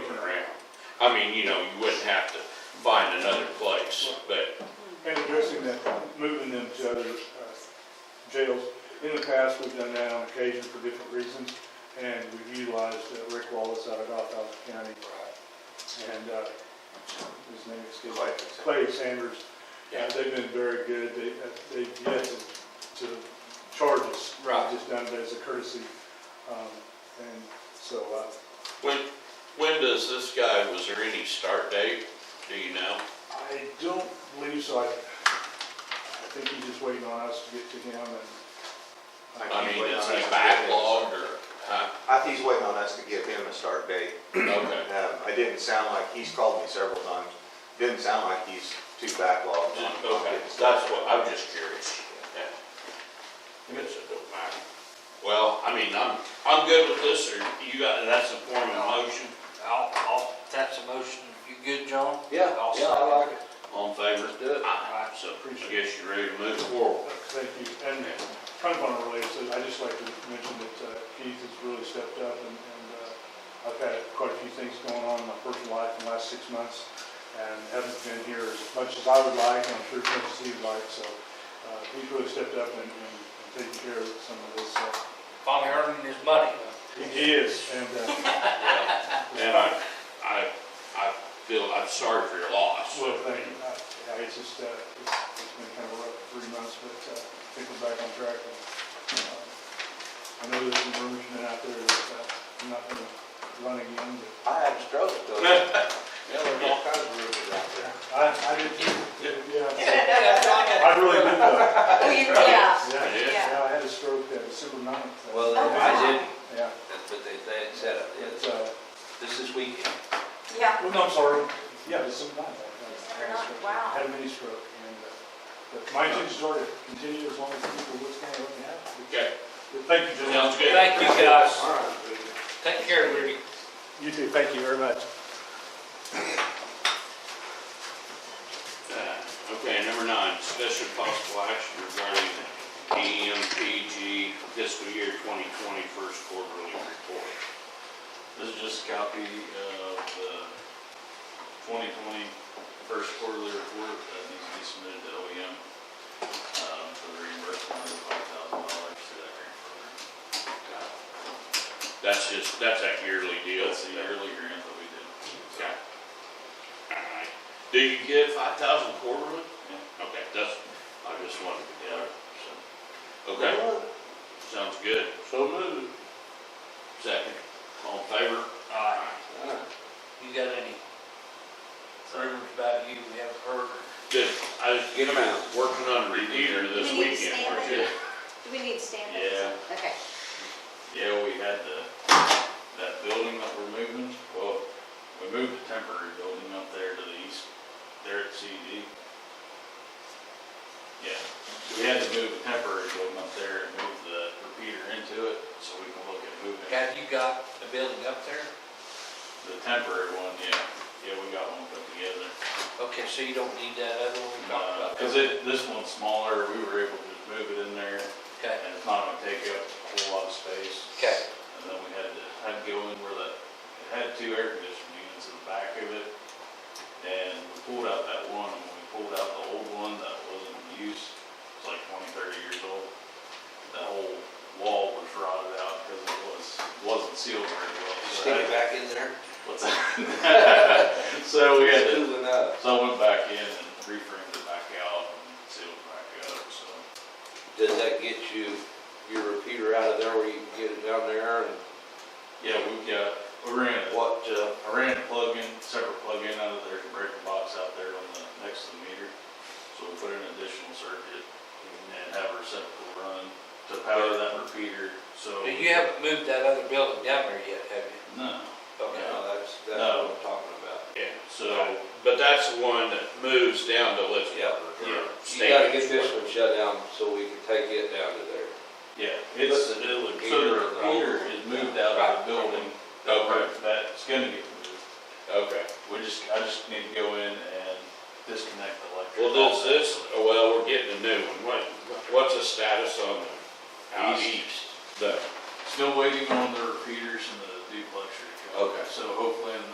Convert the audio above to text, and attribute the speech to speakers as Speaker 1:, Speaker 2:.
Speaker 1: mean, you know, you wouldn't have to find another place, but,
Speaker 2: And addressing that, moving them to other uh, jails. In the past, we've done that on occasion for different reasons, and we've utilized uh, Rick Wallace out of Alphaba County. And uh, his name is
Speaker 3: Clay.
Speaker 2: Clay Sanders.
Speaker 1: Yeah.
Speaker 2: Uh, They've been very good. They, uh, they've yet to, to charge us. They've
Speaker 1: Right.
Speaker 2: Just done it as a courtesy. Um, And so, uh,
Speaker 1: when, when does this guy, was there any start date, do you know?
Speaker 2: I don't believe so. I, I think he's just waiting on us to get to him and
Speaker 1: I mean, uh,
Speaker 3: waiting
Speaker 1: is
Speaker 3: on us
Speaker 1: he
Speaker 3: to get him a start-
Speaker 1: backlogged or, huh?
Speaker 3: I think he's waiting on us to give him a start date.
Speaker 1: Okay.
Speaker 3: Um, I didn't sound like, he's called me several times, didn't sound like he's too backlogged. on- on
Speaker 1: Okay,
Speaker 3: getting
Speaker 1: that's
Speaker 3: started.
Speaker 1: what, I'm just curious. Yeah. I guess it don't matter. Well, I mean, I'm, I'm good with this, or you got, that's a form of motion,
Speaker 4: I'll, I'll, that's a motion. You good, John?
Speaker 3: Yeah,
Speaker 4: I'll
Speaker 3: yeah, I
Speaker 4: second.
Speaker 3: like it.
Speaker 1: all in favor?
Speaker 3: do it.
Speaker 1: Aye. So, I guess you're ready to move forward.
Speaker 2: Thank you. And kind of on a related, so I'd just like to mention that uh, Keith has really stepped up and and, uh, I've had quite a few things going on in my personal life in the last six months and haven't been here as much as I would like, and I'm sure as much as he would like, so uh, he's really stepped up and and taken care of some of this. uh,
Speaker 4: Finally earning his money.
Speaker 2: He is, and uh,
Speaker 1: And I, I, I feel, I'm sorry for your loss.
Speaker 2: well, thank you. I- I- It's just, uh, it's it's been kind of rough three months, but uh, I think we're back on track. and, uh, I know there's some rumors been out there that uh, I'm not going to run again, but
Speaker 3: I had a stroke though. Yeah, there's all kinds of rumors out there.
Speaker 2: I, I did, yeah. I really did though.
Speaker 5: Well, Oh, you- yeah.
Speaker 2: Yeah,
Speaker 1: Yeah.
Speaker 2: yeah, I had a stroke at December ninth.
Speaker 6: Well, I didn't,
Speaker 2: Yeah,
Speaker 6: that's what they, they had said, up
Speaker 2: it's,
Speaker 6: there.
Speaker 2: uh,
Speaker 6: this is weekend.
Speaker 5: Yeah.
Speaker 2: well, no, I'm sorry, yeah, December ninth. I had a
Speaker 5: December 9th,
Speaker 2: stroke.
Speaker 5: wow.
Speaker 2: I Had a mini stroke and, uh, but my intentions are to continue as long as people what's going to happen.
Speaker 1: Okay,
Speaker 2: But Thank you,
Speaker 1: sounds
Speaker 2: gentlemen.
Speaker 1: good.
Speaker 4: Thank you, guys.
Speaker 3: All right, good.
Speaker 4: Take care, Rudy.
Speaker 2: You too, thank you very much.
Speaker 1: Uh, Okay, number nine, discussion of possible action regarding the EMPG fiscal year 2020 first quarterly report.
Speaker 7: This is just a copy of the 2020 first quarterly report that needs to be submitted to OEM um, for the reimbursement of $5,000 to that grant program.
Speaker 1: That's just, that's that yearly deal.
Speaker 7: That's the yearly grant that we did.
Speaker 1: Okay. All right. Do you get 5,000 quarterly?
Speaker 7: Yeah.
Speaker 1: Okay, that's, I just wanted to get
Speaker 7: Yeah.
Speaker 1: it. so. Okay, sounds good. So moved. Second, all in favor?
Speaker 4: Aye. You got any rumors about you we haven't heard?
Speaker 1: Just, I just
Speaker 6: Get 'em out.
Speaker 1: Working on review
Speaker 5: We need
Speaker 1: this
Speaker 5: to
Speaker 1: weekend.
Speaker 5: stand
Speaker 1: we're
Speaker 5: it.
Speaker 1: good.
Speaker 5: Do we need stand
Speaker 7: Yeah.
Speaker 5: Okay.
Speaker 7: Yeah, we had the, that building that we're moving, well, we moved the temporary building up there to the east, there at CD. Yeah, so we had to move the temporary building up there and move the repeater into it, so we can look at moving
Speaker 4: Have you got a building up there?
Speaker 7: the temporary one, yeah. Yeah, we got one put together.
Speaker 4: Okay, so you don't need that other one we talked
Speaker 7: Uh,
Speaker 4: about?
Speaker 7: Cause it, this one's smaller, we were able to just move it in there,
Speaker 4: Okay,
Speaker 7: and it's not gonna take up a whole lot of space.
Speaker 4: okay.
Speaker 7: And then we had to, had to go in where the, it had two air conditioning units in the back of it. And we pulled out that one, and when we pulled out the old one that wasn't in use, it's like twenty, thirty years old. That whole wall was rotted out because it was, wasn't sealed very well. so
Speaker 6: Stick
Speaker 7: that-
Speaker 6: it back in there.
Speaker 7: What's that? So we had to,
Speaker 6: It's Cooling up.
Speaker 7: so I went back in and reframed it back out and sealed it back up, so.
Speaker 6: Does that get you, your repeater out of there where you can get it down there and
Speaker 7: Yeah, we've got, we ran, a-
Speaker 6: what, uh,
Speaker 7: I ran a plug-in, separate plug-in out of there's a breaker box out there on the, next to the meter. So we put in an additional circuit and have a receptacle run to power that repeater, so.
Speaker 4: So you haven't moved that other building down there yet, have you?
Speaker 7: No,
Speaker 4: Okay.
Speaker 6: no, that's, that's
Speaker 7: No.
Speaker 6: what I'm talking about.
Speaker 1: Yeah,
Speaker 7: so,
Speaker 1: but that's the one that moves down to Elizabeth.
Speaker 6: Yeah.
Speaker 1: Yeah.
Speaker 6: You gotta get this one shut down so we can take it down to there.
Speaker 7: yeah, it's, so the repeater is moved out of the building.
Speaker 1: Okay,
Speaker 7: That's gonna get moved.
Speaker 1: okay.
Speaker 7: We just, I just need to go in and disconnect the electric.
Speaker 1: Well, does this, oh, well, we're getting a new one. What, what's the status on the out
Speaker 7: East.
Speaker 1: east? The
Speaker 7: Still waiting on the repeaters and the duplexer to come.
Speaker 1: Okay.
Speaker 7: So hopefully in the